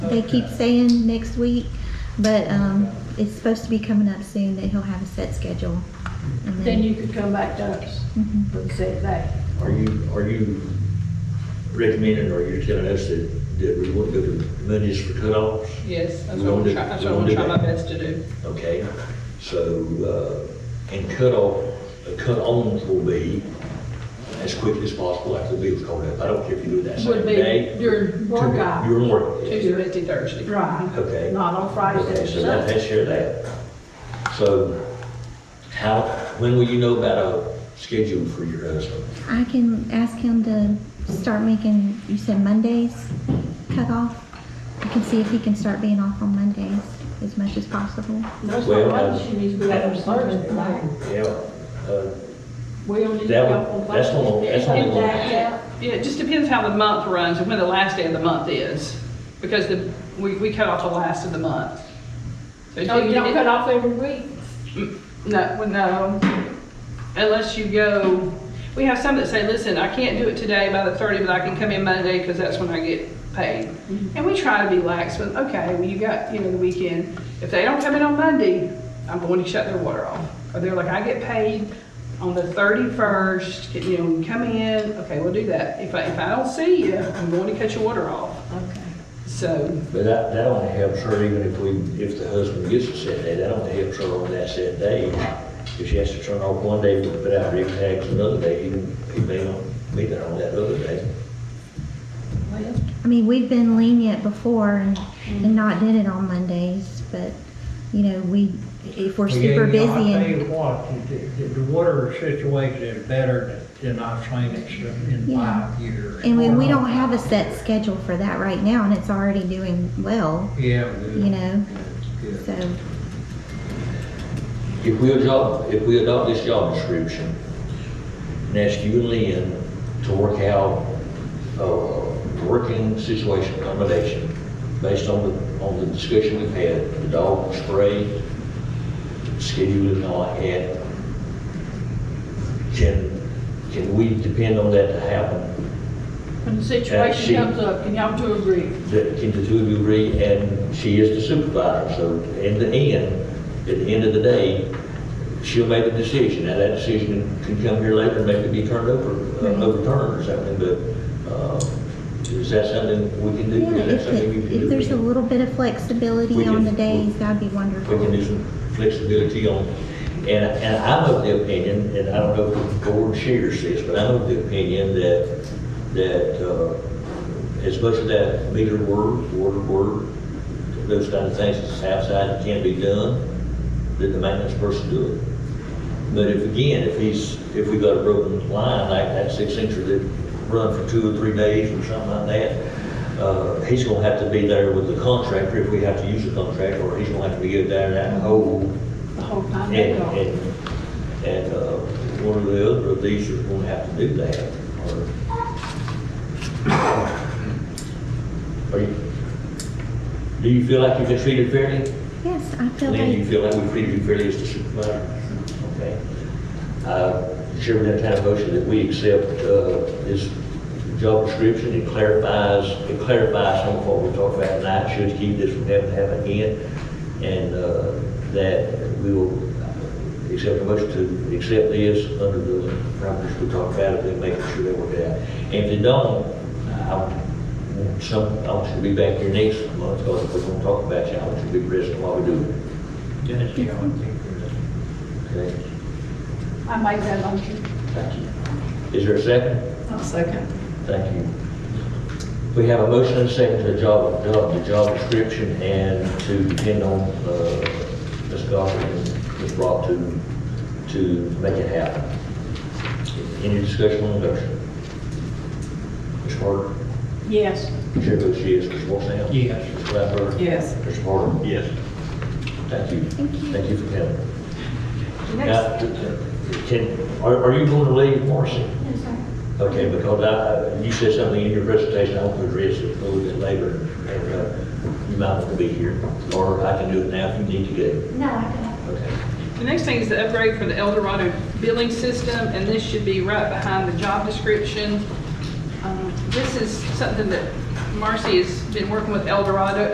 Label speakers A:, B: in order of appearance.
A: they keep saying next week, but, um, it's supposed to be coming up soon that he'll have a set schedule. And
B: Then you could come back to us
A: Mhm.
B: and say that.
C: Are you, are you recommending, or you're telling us that, that we want to go to Mondays for cutoffs?
D: Yes, that's
C: We
D: what
C: won't
D: I'm
C: do-
D: trying, that's
C: we
D: what I'm
C: won't do
D: trying my
C: that.
D: best to do.
C: Okay, so, uh, and cutoff, uh, cut-ons will be as quick as possible after the bill's called up. I don't care if you do it that same
B: Would be
C: day.
B: during work hours.
C: You're working.
D: Tuesday, Wednesday, Thursday.
B: Right.
C: Okay.
B: Not on Fridays
C: Okay,
B: and
C: so that, that's your that. So how, when will you know about a schedule for your husband?
A: I can ask him to start making, you said Mondays cut off. I can see if he can start being off on Mondays as much as possible.
B: That's
C: Well,
B: why
C: uh,
B: she needs to be out on Thursday night.
C: Yeah, uh,
B: We only need to
C: That
B: go
C: would-
B: on Thursday.
C: that's gonna- that's gonna
B: And
C: work.
B: that's out.
D: Yeah, it just depends how the month runs and when the last day of the month is, because the, we, we cut off the last of the month. So
B: Oh, you don't
D: it-
B: cut off every week?
D: Mm, No, well, no, unless um, you go, we have some that say, listen, I can't do it today by the 30, but I can come in Monday because that's when I get paid. And we try to be lax, but okay, well, you got, you know, the weekend. If they don't come in on Monday, I'm going to shut their water off. Or they're like, I get paid on the 31st, Can- you know, come in, okay, we'll do that. If I, if I don't see you, I'm going to cut your water off.
B: Okay.
D: So,
C: But that, that only helps her even if we, if the husband gets a set day, that only helps her on that set day. If she has to turn off one day, put out red tags another day, he, he may not be there on that other day.
B: Well,
A: I mean, we've been lenient before and, and not did it on Mondays, but, you know, we, if we're
E: Well, yeah,
A: super
E: you know,
A: busy
E: I tell you
A: and,
E: what, the, the- the water situation is better than than I've seen it in
A: Yeah.
E: five years.
A: and we, we don't have a set schedule for that right now and it's already doing well,
E: Yeah.
A: you know,
E: good.
A: so.
C: If we adopt, if we adopt this job description, and ask you and Lynn to work out a working situation accommodation based on the, on the discussion we've had, the dog spray, schedule and all that, can, can we depend on that to happen?
B: When the
C: Uh, she-
B: situation comes up, can y'all two agree?
C: That, can the two of you agree, and she is the supervisor, so in the end, at the end of the day, she'll make the decision, now that decision can come here later, and maybe be turned over,
A: Mm-hmm.
C: uh, overturned or something, but, uh, is that something we can do?
A: Yeah,
C: Is that
A: if,
C: something you
A: it-
C: can do?
A: if there's a little bit of
C: We
A: flexibility
C: can-
A: on the days, that'd be wonderful.
C: we can do some flexibility on. And, and I'm of the opinion, and I don't know if the board shares this, but I'm of the opinion that, that, uh, as much of that meter work, water work, those kind of things that's outside can be done, then the maintenance person do it. But if, again, if he's, if we got a broken line, like that six incher that run for two or three days or something like that, uh, he's gonna have to be there with the contractor if we have to use the contractor, or he's gonna have to be there in that hole.
B: The whole time
C: And,
B: they go.
C: and, and, uh, one or the other of these is gonna have to do that, or. Are you, do you feel like you've been treated fairly?
A: Yes, I feel
C: Lynn, do you
A: like,
C: feel like we treated you fairly as the supervisor? Okay. Uh, Chairman, that kind of motion that we accept uh, this job description, it clarifies, it clarifies some of what we talked about tonight, should keep this from having to happen again, and uh, that we will accept a motion to accept this under the parameters we talked about, and then making sure they work it out. And if they don't, I want some, I want you to be back here next month, because we're gonna talk about you, I want you to be present while we do it,
E: Dennis, you know, I think there's-
C: okay?
B: I make that motion.
C: Thank you. Is there a second?
B: I'll second.
C: Thank you. We have a motion and a second to the job, job- the job description and to depend on, uh, Ms. Goffin and Ms. Brock to, to make it happen. Any discussion on the motion? Ms. Carter?
B: Yes.
C: Chair votes yes. Ms. Walsall?
E: Yes.
C: Ms. Flatberg?
B: Yes.
C: Mr. Carter? Yes. Thank you.
A: Thank you.
C: Thank you for coming. Now,
B: Next.
C: can, are, are you going to leave Morrissey? Okay, because I, you said something in your presentation, I want to address it a little bit later, and, uh, you might want to be here, or I can do it now if you need to go.
F: No, I don't.
C: Okay.
D: The next thing is the upgrade for the Eldorado billing system, and this should be right behind the job description. Um, This is something that Marcy has been working with Eldorado